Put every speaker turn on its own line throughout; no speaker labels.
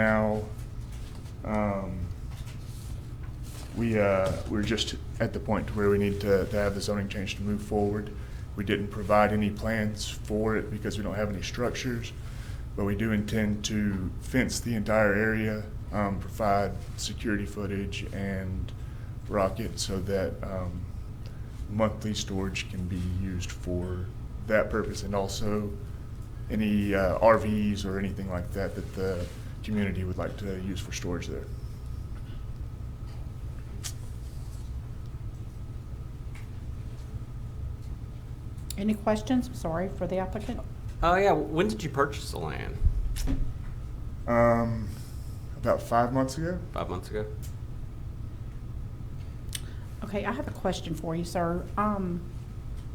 Now, um, we, uh, we're just at the point where we need to, to have the zoning change to move forward. We didn't provide any plans for it because we don't have any structures, but we do intend to fence the entire area, um, provide security footage and rocket so that, um, monthly storage can be used for that purpose and also any uh, RVs or anything like that that the community would like to use for storage there.
Any questions, I'm sorry, for the applicant?
Oh yeah, when did you purchase the land?
Um, about five months ago,
Five months ago.
Okay, I have a question for you, sir. Um,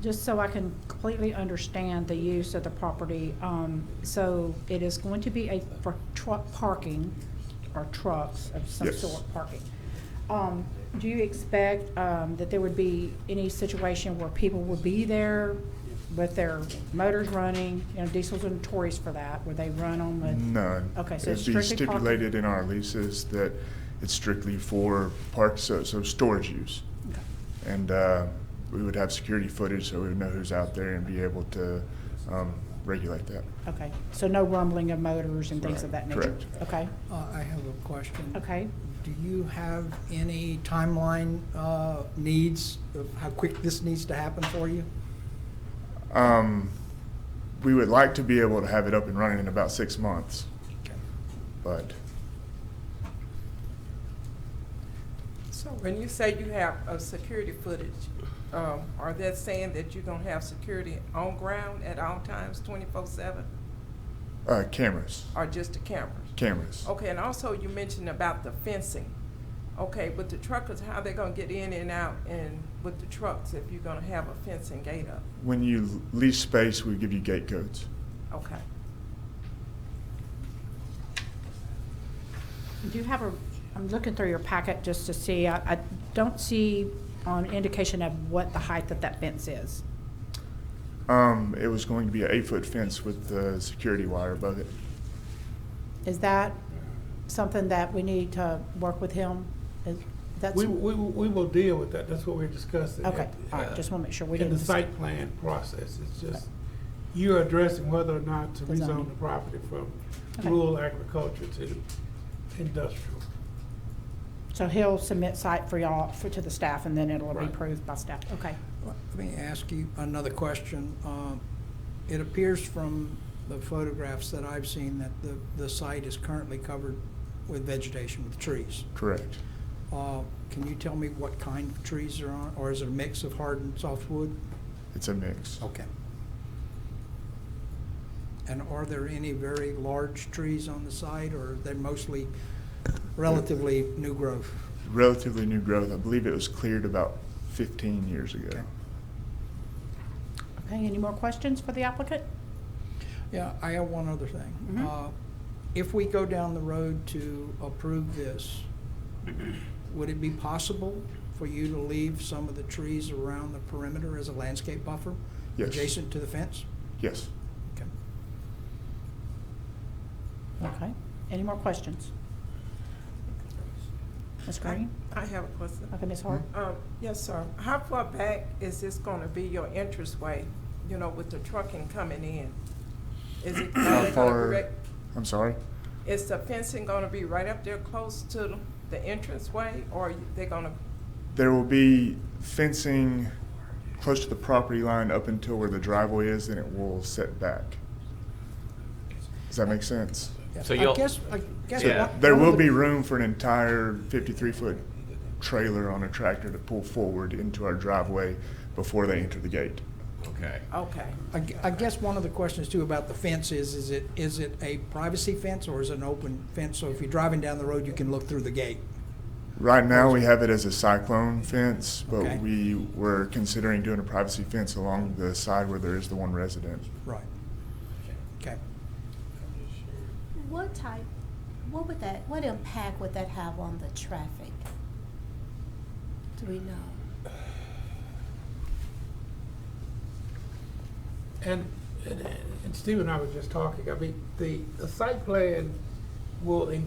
just so I can completely understand the use of the property, um, so it is going to be a, for truck parking, or trucks of some
Yes.
sort parking. Um, do you expect, um, that there would be any situation where people would be there with their motors running? You know, diesels are notorious for that, where they run on the.
none.
Okay, so it's
It'd be
strictly parking.
stipulated in our leases that it's strictly for park, so, so storage use.
Okay.
And uh, we would have security footage so we would know who's out there and be able to um, regulate that.
Okay, so no rumbling of motors and things of
Right,
that nature?
correct.
Okay,
Uh, I have a question.
okay.
Do you have any timeline uh, needs of how quick this needs to happen for you?
Um, we would like to be able to have it up and running in about six months, but
So when you say you have a security footage, um, are that saying that you're gonna have security on ground at all times, twenty-four seven,
uh, cameras,
or just the cameras?
cameras.
Okay, and also you mentioned about the fencing. Okay, with the truckers, how they gonna get in and out and with the trucks if you're gonna have a fencing gate up?
When you lease space, we give you gate codes.
Okay.
Do you have a, I'm looking through your packet just to see, I, I don't see an indication of what the height of that fence is.
Um, it was going to be an eight-foot fence with the security wire above it.
Is that something that we need to work with him? Is- That's,
We, we, we will deal with that, that's what we're discussing.
okay, all
Uh,
right, just want to make sure we
In
didn't.
the
dis-
site plan process, it's just, you're addressing whether or not to
The
rezone
zoning.
the property from
Okay.
rural agriculture to industrial.
So he'll submit site for y'all, for, to the staff, and then it'll be
Right.
approved by staff, okay.
Let me ask you another question. Um, It appears from the photographs that I've seen that the, the site is currently covered with vegetation, with trees.
Correct.
Uh, Can you tell me what kind of trees are on, or is it a mix of hard and softwood?
It's a mix.
Okay. And are there any very large trees on the site, or are they mostly relatively new growth?
Relatively new growth. I believe it was cleared about 15 years ago.
Okay.
Okay, any more questions for the applicant?
Yeah, I have one other thing.
Mhm.
Uh, If we go down the road to approve this, would it be possible for you to leave some of the trees around the perimeter as a landscape buffer?
Yes.
Adjacent to the fence?
Yes.
Okay.
Okay, any more questions? Ms. Green?
I have a question.
Okay, Ms. Hart?
Um, yes, sir. How far back is this gonna be your entrance way, you know, with the trucking coming in? Is it? are
How
they gonna
far-
direct-
I'm sorry?
Is the fencing gonna be right up there close to the entranceway, or they're gonna,
There will be fencing close to the property line up until where the driveway is, and it will set back. Does that make sense?
Yeah,
So
I
you'll-
guess- I guess
Yeah.
one-
There
one of
will
the-
be room for an entire 53-foot trailer on a tractor to pull forward into our driveway before they enter the gate.
Okay.
okay.
I gue- I guess one of the questions too about the fence is, is it, is it a privacy fence or is it an open fence? So if you're driving down the road, you can look through the gate.
Right now, we have it as a cyclone fence,
Okay.
but we were considering doing a privacy fence along the side where there is the one resident.
Right. Okay.
What type, what would that, what impact would that have on the traffic? Do we know?
And, and and Steve and I were just talking, I mean, the, the site plan will include